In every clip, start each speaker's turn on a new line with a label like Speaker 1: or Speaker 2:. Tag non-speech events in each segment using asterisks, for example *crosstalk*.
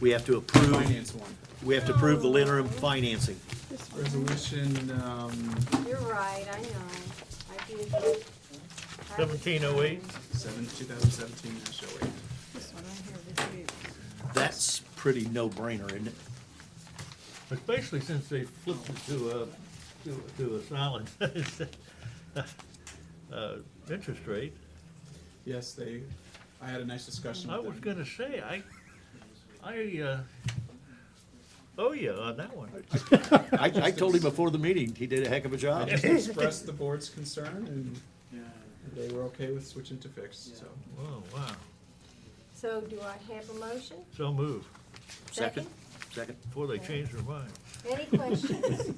Speaker 1: We have to approve,
Speaker 2: Finance one.
Speaker 1: we have to approve the interim financing.
Speaker 3: This one.
Speaker 2: Resolution, um,
Speaker 3: You're right, I know. I did. have it
Speaker 4: 1708.
Speaker 3: signed.
Speaker 2: seven, two thousand seventeen dash oh eight.
Speaker 3: This one right here,
Speaker 1: That's pretty no-brainer, isn't it?
Speaker 4: Especially since they flipped it to a, to, to a solid, *laughs* uh, interest rate.
Speaker 2: Yes, they, I had a nice discussion
Speaker 4: I
Speaker 2: with them.
Speaker 4: was gonna say, I, I, uh, owe you on that one.
Speaker 1: I, I told him before the meeting, he did a heck of a
Speaker 2: I
Speaker 1: job.
Speaker 2: just expressed the board's concern and they were okay with switching to fixed, so.
Speaker 4: Whoa, Oh, wow.
Speaker 3: this. So do I have a motion?
Speaker 4: So move,
Speaker 1: Second, second.
Speaker 4: before they change their mind.
Speaker 3: Any questions?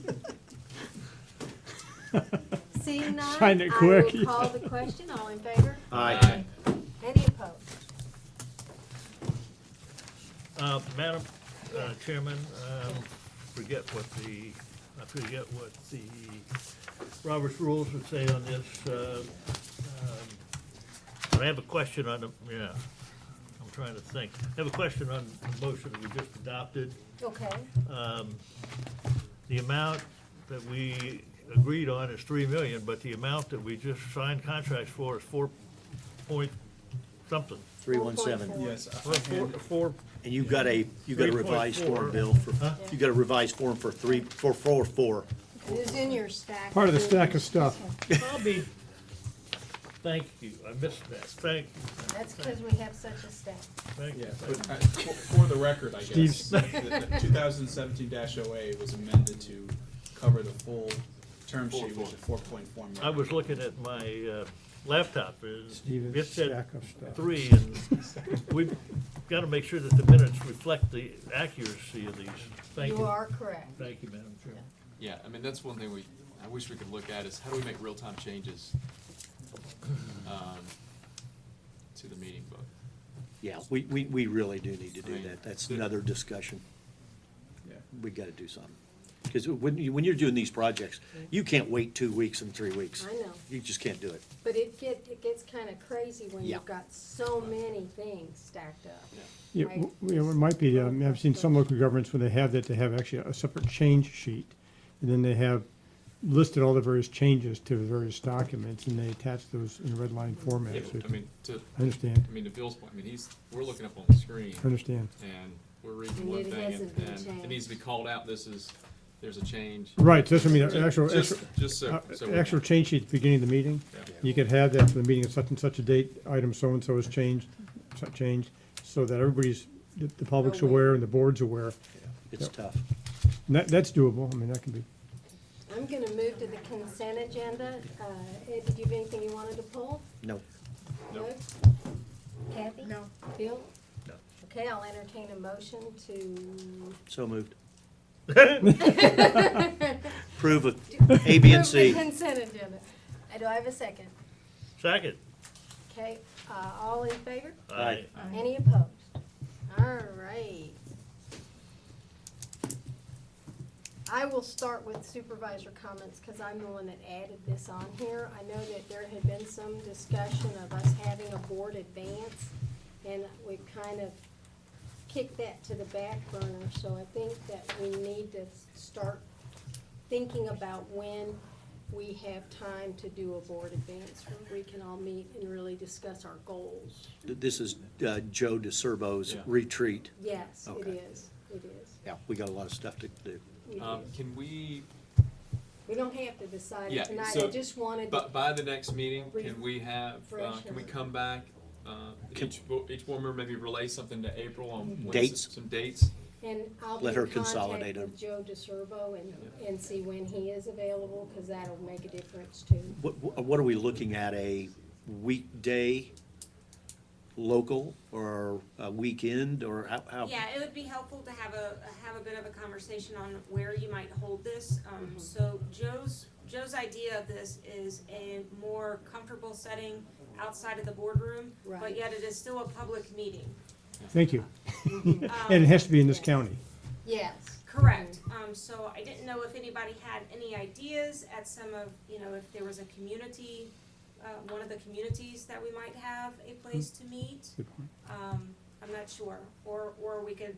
Speaker 5: *laughs*
Speaker 3: Seeing none, I
Speaker 5: Find it quick.
Speaker 3: will call the question. All in favor?
Speaker 1: Aye.
Speaker 3: Any opposed?
Speaker 4: Uh, Madam uh, Chairman, um, forget what the, I forget what the Robert's rules would say on this. uh, um, I have a question on the, yeah, I'm trying to think. I have a question on the motion that we just adopted.
Speaker 3: Okay,
Speaker 4: Um, The amount that we agreed on is three million, but the amount that we just signed contracts for is four point something.
Speaker 1: Three one seven.
Speaker 2: Yes,
Speaker 4: Four-
Speaker 2: I-
Speaker 4: Four, four,
Speaker 1: And you've got a, you've got a revised form, Bill, for,
Speaker 4: Huh?
Speaker 1: you've got a revised form for three, for four, four.
Speaker 3: it is in your stack.
Speaker 5: Part of the stack of stuff.
Speaker 4: I'll be, thank you, I missed that, thank,
Speaker 3: That's because we have such a stack.
Speaker 4: thank you.
Speaker 2: yeah,
Speaker 4: thank
Speaker 2: but I- for for the record, I guess,
Speaker 5: Steve's-
Speaker 2: two thousand seventeen dash oh eight was amended to cover the full term sheet, which is four point four
Speaker 4: you.
Speaker 2: million.
Speaker 4: I was looking at my uh, laptop, and it
Speaker 5: Steven's
Speaker 4: said
Speaker 5: stack of stuff.
Speaker 4: three, and we've got to make sure that the minutes reflect the accuracy of these. Thank
Speaker 3: You
Speaker 4: you,
Speaker 3: are correct.
Speaker 4: thank you, Madam Chair.
Speaker 6: Yeah, I mean, that's one thing we, I wish we could look at is how do we make real-time changes um, to the meeting book?
Speaker 1: Yeah, we, we, we really do need to do
Speaker 6: Right.
Speaker 1: that. That's another discussion.
Speaker 2: Yeah.
Speaker 1: We gotta do something. Because when you, when you're doing these projects, you can't wait two weeks and three weeks.
Speaker 3: I know.
Speaker 1: You just can't do it.
Speaker 3: But it get, it gets kind of crazy when
Speaker 1: Yeah.
Speaker 3: you've got so many things stacked up.
Speaker 6: Yeah.
Speaker 5: Yeah,
Speaker 3: Right.
Speaker 5: w- yeah, well, it might be, um, I've seen some local governments where they have that, they have actually a separate change sheet. And then they have listed all the various changes to the various documents and they attach those in red line format.
Speaker 6: Yeah,
Speaker 5: so
Speaker 6: but,
Speaker 5: you
Speaker 6: I
Speaker 5: can-
Speaker 6: mean, to,
Speaker 5: I understand,
Speaker 6: I mean, to Bill's point, I mean, he's, we're looking up on the screen
Speaker 5: I understand.
Speaker 6: and we're
Speaker 3: And
Speaker 6: reading one
Speaker 3: it
Speaker 6: thing
Speaker 3: hasn't
Speaker 6: and
Speaker 3: been
Speaker 6: and it needs to be called out, this is, there's a change.
Speaker 5: Right, so that's what I mean, an actual,
Speaker 6: Just,
Speaker 5: actual-
Speaker 6: just so,
Speaker 5: uh,
Speaker 6: so. we know.
Speaker 5: actual change sheet at the beginning of the meeting.
Speaker 6: Yeah.
Speaker 5: You could have that for the meeting of such and such a date, item so-and-so has changed, so- changed, so that everybody's, the- the public's
Speaker 3: Aware.
Speaker 5: aware and the board's aware.
Speaker 1: It's
Speaker 5: Yep.
Speaker 1: tough.
Speaker 5: And that, that's doable, I mean, that can be.
Speaker 3: I'm going to move to the consent agenda. Uh, Ed, did you have anything you wanted to pull?
Speaker 1: No.
Speaker 6: No.
Speaker 3: Kathy? No. Bill?
Speaker 1: No.
Speaker 3: Okay, I'll entertain a motion to.
Speaker 1: So moved. Approve of A, B, and
Speaker 3: *laughs* Approve the
Speaker 1: C.
Speaker 3: Consent agenda. Uh, Do I have a second?
Speaker 4: *laughs* Second.
Speaker 3: Okay, uh, all in favor?
Speaker 1: Aye.
Speaker 3: Any opposed? All right. I will start with supervisor comments because I'm the one that added this on here. I know that there had been some discussion of us having a board advance and we've kind of kicked that to the back burner. So I think that we need to start thinking about when we have time to do a board advance. where We can all meet and really discuss our goals.
Speaker 1: This is uh, Joe DeCervo's
Speaker 6: Yeah.
Speaker 1: retreat.
Speaker 3: Yes, it
Speaker 1: Okay.
Speaker 3: is, it is.
Speaker 1: Yeah, we got a lot of stuff to do.
Speaker 3: We
Speaker 6: Um,
Speaker 3: do.
Speaker 6: Can we,
Speaker 3: We don't have to decide it
Speaker 6: Yeah,
Speaker 3: tonight, I
Speaker 6: so-
Speaker 3: just wanted,
Speaker 6: But by the next meeting,
Speaker 3: Brief-
Speaker 6: can we have, uh,
Speaker 3: fresh
Speaker 6: can we
Speaker 3: and-
Speaker 6: come back? uh, Each, bo- each board member maybe relay something to April on when s-
Speaker 1: Dates.
Speaker 6: Some dates?
Speaker 3: and I'll be
Speaker 1: Let her
Speaker 3: in contact
Speaker 1: consolidate 'em.
Speaker 3: with Joe DeSerbo and, and see when he is available, because that'll make a difference too.
Speaker 1: What, what are we looking at, a weekday local or a weekend or how- how?
Speaker 7: Yeah, it would be helpful to have a, have a bit of a conversation on where you might hold this. Um, so Joe's, Joe's idea of this is a more comfortable setting outside of the boardroom,
Speaker 3: Right.
Speaker 7: but yet it is still a public meeting.
Speaker 5: Thank you. And it has to be in this county.
Speaker 3: Yes,
Speaker 7: Correct. Um, so I didn't know if anybody had any ideas at some of, you know, if there was a community, uh, one of the communities that we might have a place to meet.
Speaker 5: Good point.
Speaker 7: Um, I'm not sure, or, or we could